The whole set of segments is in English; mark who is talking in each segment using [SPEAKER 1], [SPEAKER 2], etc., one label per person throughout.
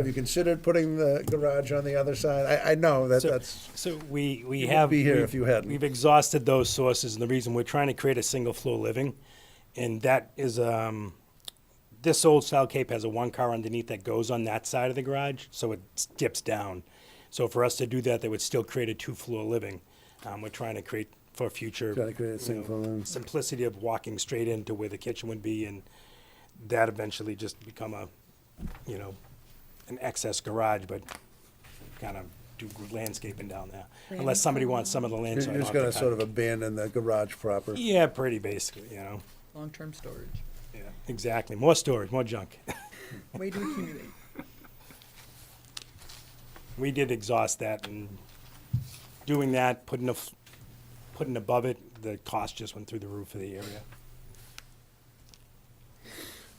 [SPEAKER 1] Have you considered putting the garage on the other side? I, I know that
[SPEAKER 2] So-
[SPEAKER 1] that's,
[SPEAKER 2] So we, we
[SPEAKER 1] You
[SPEAKER 2] have.
[SPEAKER 1] wouldn't be here
[SPEAKER 2] we've-
[SPEAKER 1] if you hadn't.
[SPEAKER 2] We've exhausted those sources, and the reason we're trying to create a single floor living, and that is, um, this old style Cape has a one car underneath that goes on that side of the garage, so it s- dips down. So for us to do that, that would still create a two floor living. Um, we're trying to create for future.
[SPEAKER 1] Trying to create a
[SPEAKER 2] you
[SPEAKER 1] single
[SPEAKER 2] know,
[SPEAKER 1] floor living.
[SPEAKER 2] Simplicity of walking straight into where the kitchen would be, and that eventually just become a, you know, an excess garage, but kind of do landscaping down there, unless somebody wants some of the land. so I
[SPEAKER 1] you're
[SPEAKER 2] don't
[SPEAKER 1] just
[SPEAKER 2] have to
[SPEAKER 1] gonna
[SPEAKER 2] cut.
[SPEAKER 1] sort of abandon the garage proper.
[SPEAKER 2] Yeah, pretty basically, you know,
[SPEAKER 3] long-term storage.
[SPEAKER 2] yeah, exactly, more storage, more junk.
[SPEAKER 3] Way to accumulate.
[SPEAKER 2] We did exhaust that, and doing that, putting a, f- putting above it, the cost just went through the roof of the area.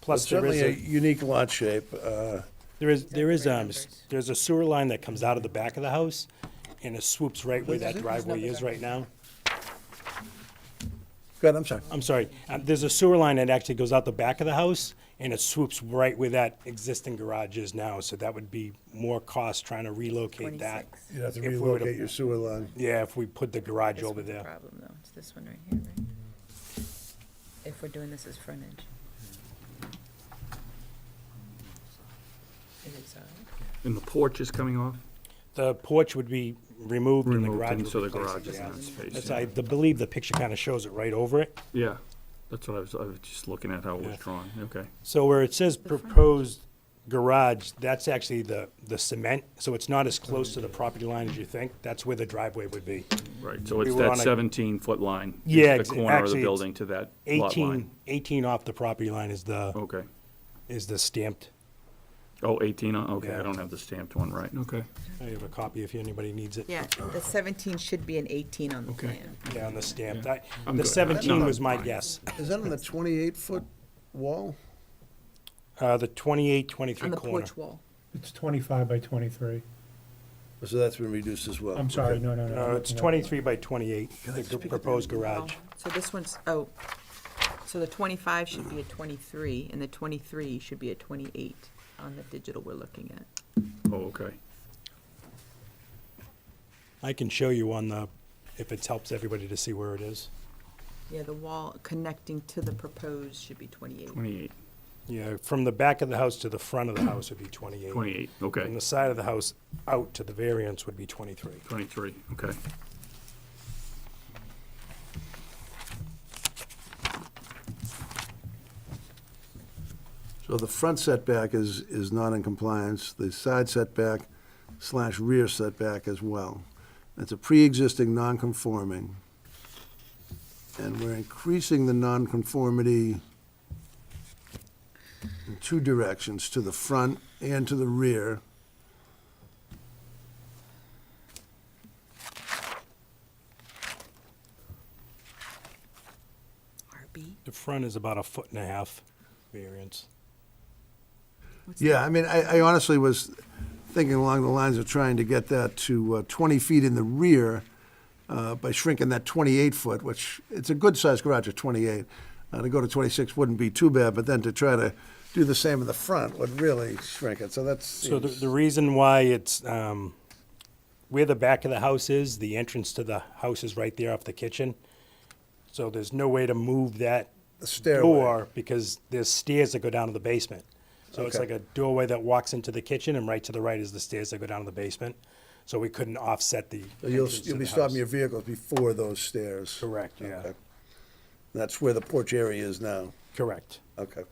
[SPEAKER 2] Plus,
[SPEAKER 1] It's
[SPEAKER 2] there is
[SPEAKER 1] certainly a
[SPEAKER 2] a.
[SPEAKER 1] unique lot shape, uh,
[SPEAKER 2] There is, there is,
[SPEAKER 3] great
[SPEAKER 2] um, s-
[SPEAKER 3] numbers.
[SPEAKER 2] there's a sewer line that comes out of the back of the house, and it swoops right where
[SPEAKER 3] Wait, is
[SPEAKER 2] that
[SPEAKER 3] it? It's
[SPEAKER 2] driveway
[SPEAKER 3] not the
[SPEAKER 2] is
[SPEAKER 3] back.
[SPEAKER 2] right now.
[SPEAKER 1] go ahead, I'm sorry.
[SPEAKER 2] I'm sorry, um, there's a sewer line that actually goes out the back of the house, and it swoops right where that existing garage is now, so that would be more cost trying to relocate that.
[SPEAKER 3] 26.
[SPEAKER 1] You have to
[SPEAKER 2] If we were to-
[SPEAKER 1] relocate your sewer line.
[SPEAKER 2] Yeah, if we put the garage
[SPEAKER 3] This
[SPEAKER 2] over
[SPEAKER 3] one's the
[SPEAKER 2] there.
[SPEAKER 3] Problem though, it's this one right here, right? If we're doing this as frontage. Is it solid?
[SPEAKER 4] And the porch is coming off?
[SPEAKER 2] The porch would be removed and the
[SPEAKER 4] Removed,
[SPEAKER 2] garage
[SPEAKER 4] and
[SPEAKER 2] would
[SPEAKER 4] so
[SPEAKER 2] be
[SPEAKER 4] the
[SPEAKER 2] placed,
[SPEAKER 4] garage is
[SPEAKER 2] yeah.
[SPEAKER 4] in that space,
[SPEAKER 2] That's,
[SPEAKER 4] yeah.
[SPEAKER 2] I the- believe the picture kind of shows it right over it.
[SPEAKER 4] Yeah, that's what I was, I was just looking at how it
[SPEAKER 2] Yeah.
[SPEAKER 4] was drawn, okay.
[SPEAKER 2] So where it says
[SPEAKER 3] front.
[SPEAKER 2] proposed garage, that's actually the, the cement, so it's not as close to the property line as you think. That's where the driveway would be.
[SPEAKER 4] Right, so
[SPEAKER 2] We
[SPEAKER 4] it's
[SPEAKER 2] were on
[SPEAKER 4] that
[SPEAKER 2] a-
[SPEAKER 4] seventeen foot line. is
[SPEAKER 2] Yeah, ex-
[SPEAKER 4] The corner of
[SPEAKER 2] actually,
[SPEAKER 4] the
[SPEAKER 2] it's
[SPEAKER 4] building to that lot line.
[SPEAKER 2] 18, 18 off the property line is the,
[SPEAKER 4] Okay.
[SPEAKER 2] is the stamped.
[SPEAKER 4] Oh, eighteen, uh, okay,
[SPEAKER 2] Yeah.
[SPEAKER 4] I don't have the stamped one right, okay.
[SPEAKER 2] I have a copy if anybody needs it.
[SPEAKER 3] Yeah, the seventeen should be an eighteen on the
[SPEAKER 4] Okay.
[SPEAKER 3] plan.
[SPEAKER 2] Yeah, on the stamped.
[SPEAKER 4] Yeah.
[SPEAKER 2] I-
[SPEAKER 4] I'm
[SPEAKER 2] The
[SPEAKER 4] good.
[SPEAKER 2] 17
[SPEAKER 4] No,
[SPEAKER 2] was my
[SPEAKER 4] fine.
[SPEAKER 2] guess.
[SPEAKER 1] Is that on the twenty-eight foot wall?
[SPEAKER 2] Uh, The 28, 23
[SPEAKER 3] On the
[SPEAKER 2] corner.
[SPEAKER 3] porch wall.
[SPEAKER 5] It's 25 by 23.
[SPEAKER 1] So that's been reduced as well.
[SPEAKER 5] I'm sorry,
[SPEAKER 1] Okay.
[SPEAKER 5] no, no, no. I'm
[SPEAKER 2] No, Uh, it's
[SPEAKER 5] looking at-
[SPEAKER 2] 23 by 28, the proposed
[SPEAKER 3] Oh,
[SPEAKER 2] garage.
[SPEAKER 3] So this one's, oh, so the twenty-five should be a twenty-three, and the twenty-three should be a twenty-eight on the digital we're looking at.
[SPEAKER 4] Oh, okay.
[SPEAKER 2] I can show you on the, if it helps everybody to see where it is.
[SPEAKER 3] Yeah, the wall connecting to the proposed should be twenty-eight.
[SPEAKER 4] Twenty-eight.
[SPEAKER 2] Yeah, from the back of the house to the front of the house would be 28.
[SPEAKER 4] 28,
[SPEAKER 2] From
[SPEAKER 4] okay.
[SPEAKER 2] the side of the house out to the variance would be 23.
[SPEAKER 4] Twenty-three, okay.
[SPEAKER 1] So the front setback is, is not in compliance, the side setback slash rear setback as well. It's a pre-existing non-conforming. And we're increasing the non-conformity in two directions, to the front and to the rear.
[SPEAKER 3] RB?
[SPEAKER 2] The front is about a foot and a half variance.
[SPEAKER 1] Yeah, I mean, I, I honestly was thinking along the lines of trying to get that to uh, 20 feet in the rear uh, by shrinking that 28 foot, which, it's a good-sized garage at 28. Uh, To go to 26 wouldn't be too bad, but then to try to do the same in the front would really shrink it, so that's.
[SPEAKER 2] So the, the reason why it's, um, where the back of the house is, the entrance to the house is right there off the kitchen. So there's no way to move that
[SPEAKER 1] The stairway.
[SPEAKER 2] door because there's stairs that go down to the basement. So it's like
[SPEAKER 1] Okay.
[SPEAKER 2] a doorway that walks into the kitchen and right to the right is the stairs that go down to the basement. So we couldn't offset the.
[SPEAKER 1] So You'll,
[SPEAKER 2] entrance to
[SPEAKER 1] you'll be
[SPEAKER 2] the
[SPEAKER 1] stopping
[SPEAKER 2] house.
[SPEAKER 1] your vehicles before those stairs.
[SPEAKER 2] Correct, yeah.
[SPEAKER 1] Okay. That's where the porch area is now,
[SPEAKER 2] Correct.
[SPEAKER 1] okay.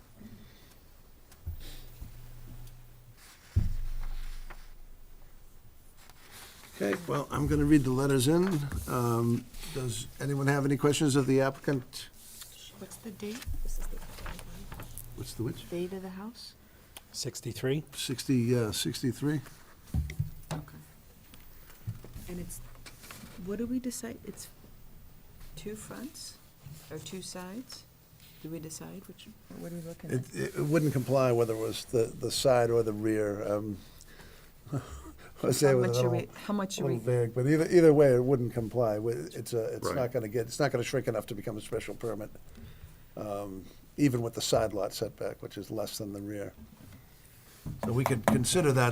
[SPEAKER 1] Okay, well, I'm gonna read the letters in. Um, Does anyone have any questions of the applicant?
[SPEAKER 3] What's the date?
[SPEAKER 1] What's the which?
[SPEAKER 3] Date of the house?
[SPEAKER 2] 63?
[SPEAKER 1] Sixty, uh, sixty-three?
[SPEAKER 3] Okay. And it's, what do we decide, it's two fronts or two sides? Do we decide which, what are we looking
[SPEAKER 1] It,
[SPEAKER 3] at?
[SPEAKER 1] it it wouldn't comply whether it was the, the side or the rear, um. I was
[SPEAKER 3] How
[SPEAKER 1] able to
[SPEAKER 3] much are
[SPEAKER 1] know.
[SPEAKER 3] we, how much
[SPEAKER 1] A
[SPEAKER 3] are
[SPEAKER 1] little
[SPEAKER 3] we,
[SPEAKER 1] vague, but either, either way, it wouldn't comply. with- It's a, it's
[SPEAKER 4] Right.
[SPEAKER 1] not gonna get, it's not gonna shrink enough to become a special permit, um, even with the side lot setback, which is less than the rear. So we could consider that